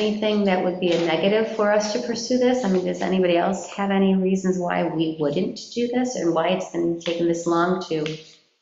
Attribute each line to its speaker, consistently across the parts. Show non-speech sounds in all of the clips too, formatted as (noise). Speaker 1: anything that would be a negative for us to pursue this? I mean, does anybody else have any reasons why we wouldn't do this and why it's been taking this long to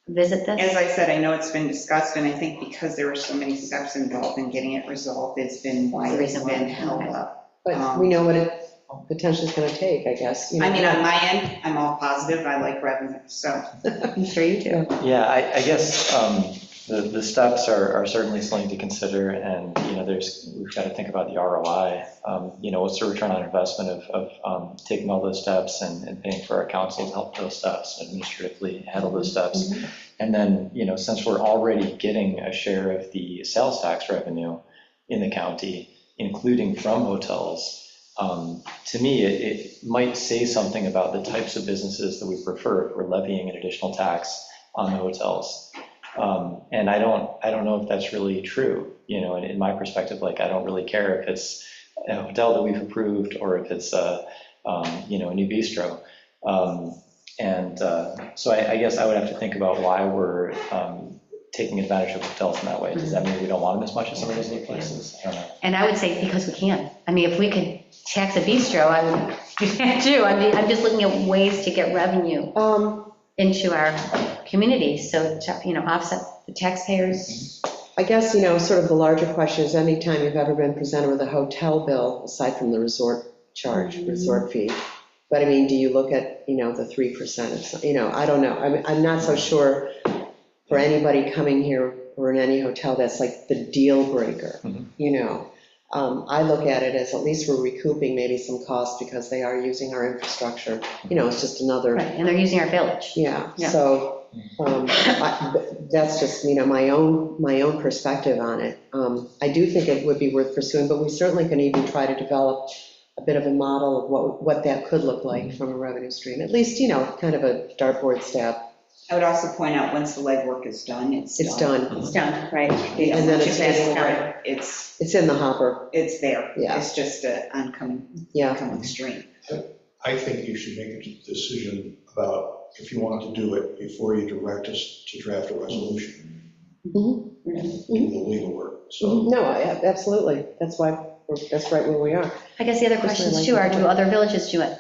Speaker 1: visit
Speaker 2: As
Speaker 1: this?
Speaker 2: I said, I know it's been discussed, and I think because there were so many steps involved in getting it resolved, it's been why it's
Speaker 1: Reason why,
Speaker 2: been held
Speaker 1: okay.
Speaker 2: up.
Speaker 3: But we know what it potentially is going to take, I guess. you
Speaker 2: Um, I
Speaker 3: know.
Speaker 2: mean, on my end, I'm all positive, I like revenue, so.
Speaker 1: I'm sure you do.
Speaker 4: Yeah, I, I guess um, the, the steps are are certainly something to consider, and, you know, there's, we've got to think about the ROI. Um, You know, what's the return on investment of, of um, taking all those steps and and paying for our council to help those steps, administratively handle those steps? And then, you know, since we're already getting a share of the sales tax revenue in the county, including from hotels, um, to me, it, it might say something about the types of businesses that we prefer if we're levying an additional tax on the hotels. Um, And I don't, I don't know if that's really true, you know, in, in my perspective, like, I don't really care if it's a hotel that we've approved or if it's a, um, you know, a new bistro. Um, And uh, so I, I guess I would have to think about why we're um, taking advantage of hotels in that way. Does that mean we don't want them as much as some of those new places? I don't know.
Speaker 1: And I would say because we can. I mean, if we could tax a bistro, I would (laughs) do that too. I mean, I'm just looking at ways to get revenue
Speaker 3: Um,
Speaker 1: into our community, so, to, you know, offset the taxpayers.
Speaker 3: I guess, you know, sort of the larger question is anytime you've ever been presented with a hotel bill, aside from the resort charge,
Speaker 2: Mm-hmm.
Speaker 3: resort fee. But I mean, do you look at, you know, the 3%, of some- you know, I don't know. I mean, I'm
Speaker 2: Mm-hmm.
Speaker 3: not so sure for anybody coming here or in any hotel, that's like the deal breaker,
Speaker 2: Mm-hmm.
Speaker 4: Mhm.
Speaker 3: you know? Um, I look at it as at least we're recouping maybe some costs because they are using our infrastructure. You know, it's just another
Speaker 1: Right, and they're using our village.
Speaker 3: Yeah,
Speaker 1: Yeah.
Speaker 3: so um, I- but that's just, you know, my own, my own perspective on it. Um, I do think it would be worth pursuing, but we certainly can even try to develop a bit of a model of what, what that could look like from a revenue stream. At least, you know, kind of a dartboard stab.
Speaker 2: I would also point out, once the legwork is done, it's done.
Speaker 3: It's done.
Speaker 1: It's done, right?
Speaker 2: They don't
Speaker 3: And then
Speaker 2: want you
Speaker 3: it's
Speaker 2: to ask
Speaker 3: getting
Speaker 2: for
Speaker 3: away.
Speaker 2: it. It's,
Speaker 3: It's in the hopper,
Speaker 2: it's there.
Speaker 3: Yeah.
Speaker 2: It's just an oncoming,
Speaker 3: yeah.
Speaker 2: oncoming stream.
Speaker 5: I think you should make a decision about if you want to do it before you direct us to draft a resolution,
Speaker 3: Mhm,
Speaker 5: do the legal work. So
Speaker 3: mhm. No, I- absolutely. That's why, we're- that's right where we are.
Speaker 1: I guess the other
Speaker 3: Personally,
Speaker 1: questions
Speaker 3: like
Speaker 1: too are,
Speaker 3: that.
Speaker 1: do other villages do it?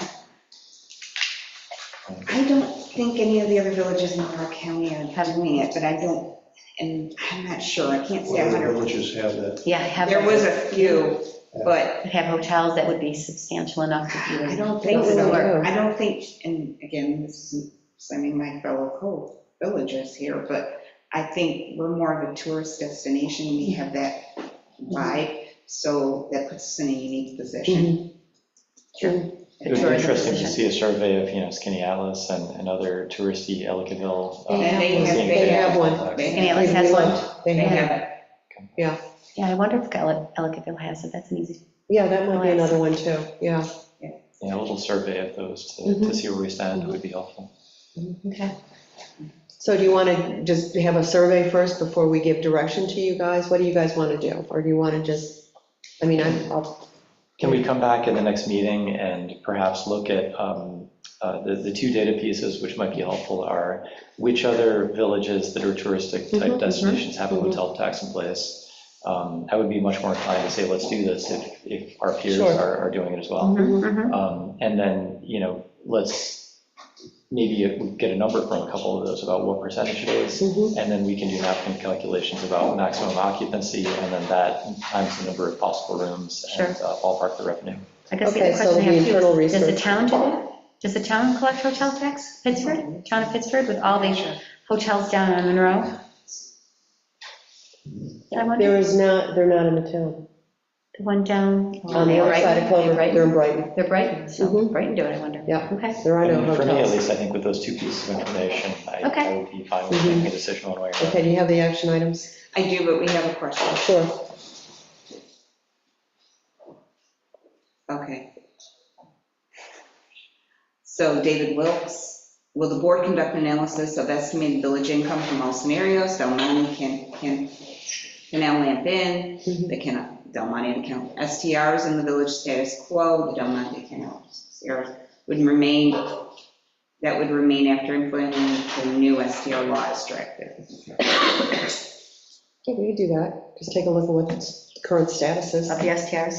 Speaker 2: I don't think any of the other villages in Monroe County are doing it, but I don't, and I'm not sure, I can't say
Speaker 5: whether the
Speaker 2: 100.
Speaker 5: villages have that,
Speaker 1: Yeah, have,
Speaker 2: There was a few, but
Speaker 1: have hotels that would be substantial enough to do
Speaker 2: I
Speaker 1: it.
Speaker 2: don't think
Speaker 1: Those
Speaker 2: so.
Speaker 3: are-
Speaker 2: I don't think, and again, this isn't slamming my fellow co-villagers here, but I think we're more of a tourist destination, we have that vibe, so that puts us in a unique position.
Speaker 3: Mhm. Sure.
Speaker 4: It would be
Speaker 1: Tourism
Speaker 4: interesting to
Speaker 1: position.
Speaker 4: see a survey of, you know, Skinny Atlas and, and other touristy Ellicottville. uh,
Speaker 2: And they have-
Speaker 4: seeing
Speaker 2: they
Speaker 4: their
Speaker 3: have one.
Speaker 4: contacts.
Speaker 2: They
Speaker 1: Any others has one?
Speaker 3: They
Speaker 2: They
Speaker 3: have,
Speaker 2: have it.
Speaker 1: Yeah, I wonder if Ele- Ellicottville has it, that's an easy,
Speaker 3: yeah, that might be another one too, yeah.
Speaker 4: Yeah, a little survey of those to, to
Speaker 3: Mhm.
Speaker 4: see where we stand would be helpful.
Speaker 1: okay.
Speaker 3: So do you want to just have a survey first before we give direction to you guys? What do you guys want to do? Or do you want to just, I mean, I'm, I'll-
Speaker 4: Can we come back at the next meeting and perhaps look at, um, uh, the, the two data pieces which might be helpful are which other villages that are touristic
Speaker 3: Mhm,
Speaker 4: type destinations have a
Speaker 3: mhm.
Speaker 4: hotel tax in place? Um, I would be much more inclined to say, let's do this if, if our peers
Speaker 3: Sure.
Speaker 4: are, are doing it as well.
Speaker 3: Mm-hmm.
Speaker 1: Mhm, mhm.
Speaker 4: Um, And then, you know, let's, maybe we get a number from a couple of those about what percentage it is.
Speaker 3: Mhm.
Speaker 4: And then we can do napkin calculations about maximum occupancy, and then that times the number of possible rooms and uh, ballpark the revenue.
Speaker 1: I guess the
Speaker 3: Okay,
Speaker 1: other
Speaker 3: so
Speaker 1: question I
Speaker 3: the
Speaker 1: have
Speaker 3: internal
Speaker 1: too is, does the
Speaker 3: research.
Speaker 1: town do it? Does the town collect hotel tax, Pittsford, town of Pittsford, with all these hotels down on Monroe? I
Speaker 3: there
Speaker 1: wonder,
Speaker 3: is not, they're not in the town.
Speaker 1: the one down.
Speaker 3: On the other side of Clover,
Speaker 1: Oh, Right.
Speaker 3: they're in Brighton.
Speaker 1: They're Brighton, so
Speaker 3: Mhm.
Speaker 1: Brighton do it, I wonder.
Speaker 3: Yeah.
Speaker 1: Okay,
Speaker 3: There are
Speaker 4: I
Speaker 3: no
Speaker 4: mean, For me, at
Speaker 3: hotels.
Speaker 4: least, I think with those two pieces of information, I- I
Speaker 1: Okay.
Speaker 4: would be fine with making a decision one way or another.
Speaker 3: Okay, do you have the action items?
Speaker 2: I do, but we have a question.
Speaker 3: Sure.
Speaker 2: Okay. So David Wilkes, will the board conduct analysis of estimated village income from all scenarios? Del Monte can, can, Canal Lamp Inn,
Speaker 3: Mhm.
Speaker 2: the Canal, Del Monte and Canal STRs and the village status quo, the Del Monte Canal STRs would remain, that would remain after implementing the new STR law is drafted.
Speaker 3: Yeah, we could do that. Just take a look at what the current status is.
Speaker 1: of the STRs.